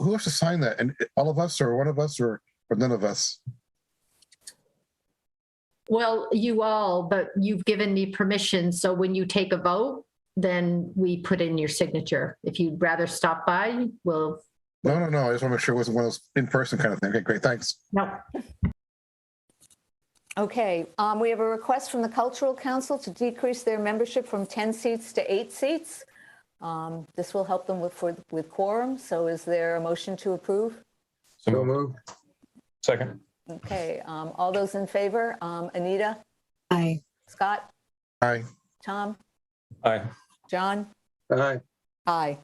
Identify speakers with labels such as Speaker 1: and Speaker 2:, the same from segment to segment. Speaker 1: who has to sign that? And all of us or one of us or, or none of us?
Speaker 2: Well, you all, but you've given me permission, so when you take a vote, then we put in your signature. If you'd rather stop by, we'll,
Speaker 1: No, no, no. I just want to make sure it wasn't one of those in-person kind of thing. Okay, great. Thanks.
Speaker 2: no,
Speaker 3: Okay, um, we have a request from the Cultural Council to decrease their membership from 10 seats to eight seats. Um, This will help them with, for- with quorum, so is there a motion to approve?
Speaker 4: So moved.
Speaker 5: move.
Speaker 4: Second.
Speaker 3: Okay, um, all those in favor? Um, Anita,
Speaker 6: Aye.
Speaker 3: Scott,
Speaker 1: Hi.
Speaker 3: Tom,
Speaker 4: Aye.
Speaker 3: John?
Speaker 5: Aye.
Speaker 3: Aye.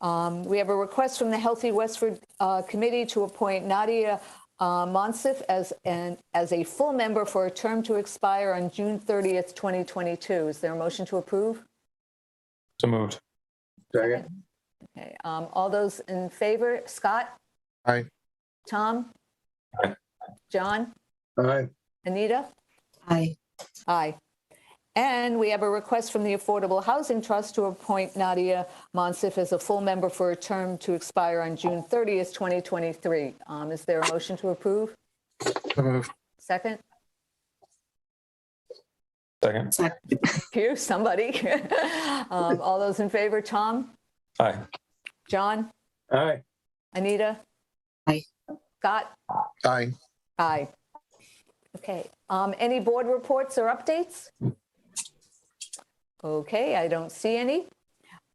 Speaker 3: Um, We have a request from the Healthy Westford uh, Committee to appoint Nadia uh, Monsif as, an as a full member for a term to expire on June 30th, 2022. Is there a motion to approve?
Speaker 4: So moved.
Speaker 5: Second.
Speaker 3: Okay, um, all those in favor, Scott?
Speaker 1: Aye.
Speaker 3: Tom?
Speaker 4: Aye.
Speaker 3: John?
Speaker 5: Aye.
Speaker 3: Anita?
Speaker 6: Aye.
Speaker 3: Aye. And we have a request from the Affordable Housing Trust to appoint Nadia Monsif as a full member for a term to expire on June 30th, 2023. Um, Is there a motion to approve?
Speaker 1: So moved.
Speaker 3: Second?
Speaker 4: Second.
Speaker 3: Here, somebody. Um, All those in favor, Tom?
Speaker 4: Aye.
Speaker 3: John?
Speaker 5: Aye.
Speaker 3: Anita?
Speaker 6: Aye.
Speaker 3: Scott?
Speaker 1: Aye.
Speaker 3: Aye. Okay, um, any board reports or updates? Okay, I don't see any.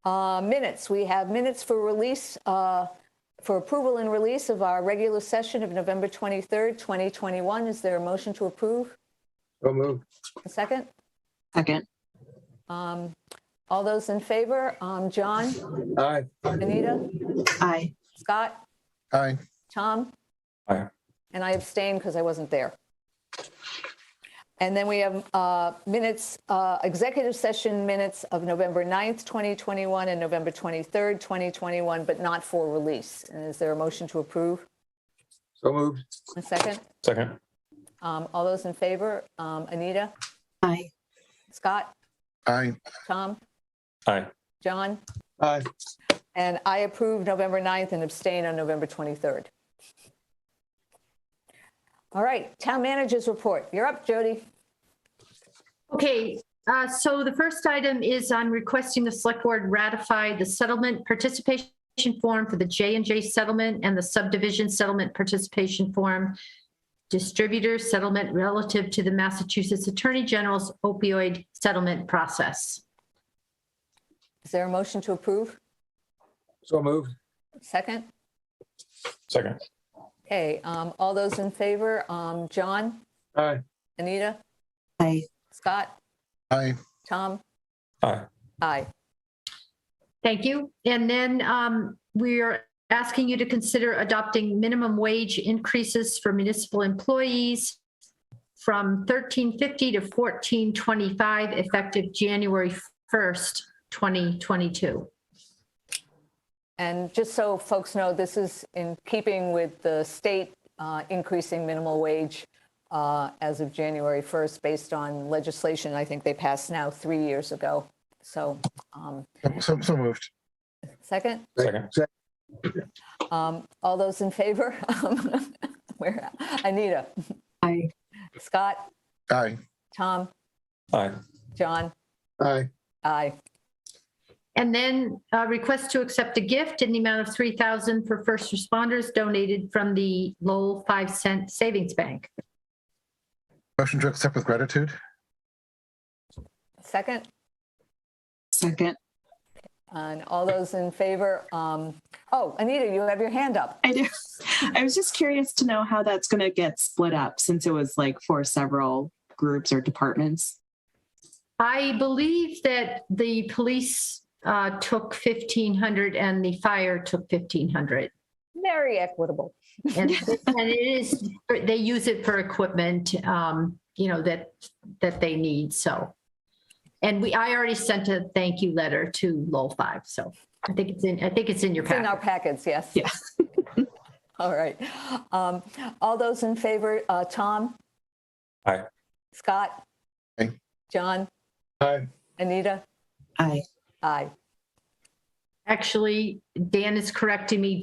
Speaker 3: Uh, minutes, we have minutes for release, uh, for approval and release of our regular session of November 23rd, 2021. Is there a motion to approve?
Speaker 5: So moved.
Speaker 3: A second?
Speaker 6: Second.
Speaker 3: Um, all those in favor? Um, John,
Speaker 5: Aye.
Speaker 3: Anita,
Speaker 6: Aye.
Speaker 3: Scott?
Speaker 1: Aye.
Speaker 3: Tom?
Speaker 4: Aye.
Speaker 3: And I abstain because I wasn't there. And then we have uh, minutes, uh, executive session minutes of November 9th, 2021 and November 23rd, 2021, but not for release. And is there a motion to approve?
Speaker 5: So moved.
Speaker 3: A second?
Speaker 4: Second.
Speaker 3: Um, All those in favor? Um, Anita?
Speaker 6: Aye.
Speaker 3: Scott?
Speaker 1: Aye.
Speaker 3: Tom?
Speaker 4: Aye.
Speaker 3: John?
Speaker 5: Aye.
Speaker 3: And I approve November 9th and abstain on November 23rd. All right, town managers report. You're up, Jody.
Speaker 2: Okay, uh, so the first item is on requesting the select board ratify the settlement participation form for the J and J settlement and the subdivision settlement participation form. Distributor settlement relative to the Massachusetts Attorney General's opioid settlement process.
Speaker 3: Is there a motion to approve?
Speaker 5: So moved.
Speaker 3: Second?
Speaker 4: Second.
Speaker 3: Okay, um, all those in favor, um, John,
Speaker 5: Aye.
Speaker 3: Anita,
Speaker 6: Aye.
Speaker 3: Scott,
Speaker 1: Aye.
Speaker 3: Tom,
Speaker 4: Aye.
Speaker 3: aye.
Speaker 2: Thank you. And then um, we're asking you to consider adopting minimum wage increases for municipal employees from 1350 to 1425 effective January 1st, 2022.
Speaker 3: And just so folks know, this is in keeping with the state uh, increasing minimal wage uh, as of January 1st, based on legislation I think they passed now three years ago. So, um,
Speaker 1: So, so moved.
Speaker 3: second?
Speaker 4: Second.
Speaker 3: Um, all those in favor? Um, Where, Anita,
Speaker 6: Aye.
Speaker 3: Scott,
Speaker 1: Aye.
Speaker 3: Tom,
Speaker 4: Aye.
Speaker 3: John,
Speaker 5: Aye.
Speaker 3: aye.
Speaker 2: And then uh, request to accept a gift in the amount of 3,000 for first responders donated from the Lowell 5 cent savings bank.
Speaker 1: Motion to accept with gratitude.
Speaker 3: Second?
Speaker 6: Second.
Speaker 3: And all those in favor, um, oh, Anita, you have your hand up.
Speaker 6: I do. I was just curious to know how that's going to get split up since it was like for several groups or departments.
Speaker 2: I believe that the police uh, took 1,500 and the fire took 1,500.
Speaker 3: Very equitable.
Speaker 2: And and it is, they use it for equipment, um, you know, that, that they need, so. And we, I already sent a thank you letter to Lowell 5, so I think it's in, I think it's in your
Speaker 3: It's in our
Speaker 2: packet.
Speaker 3: packets, yes.
Speaker 6: Yeah.
Speaker 3: All right. Um, all those in favor, uh, Tom?
Speaker 4: Aye.
Speaker 3: Scott?
Speaker 1: Aye.
Speaker 3: John?
Speaker 5: Aye.
Speaker 3: Anita?
Speaker 6: Aye.
Speaker 3: Aye.
Speaker 2: Actually, Dan is correcting me.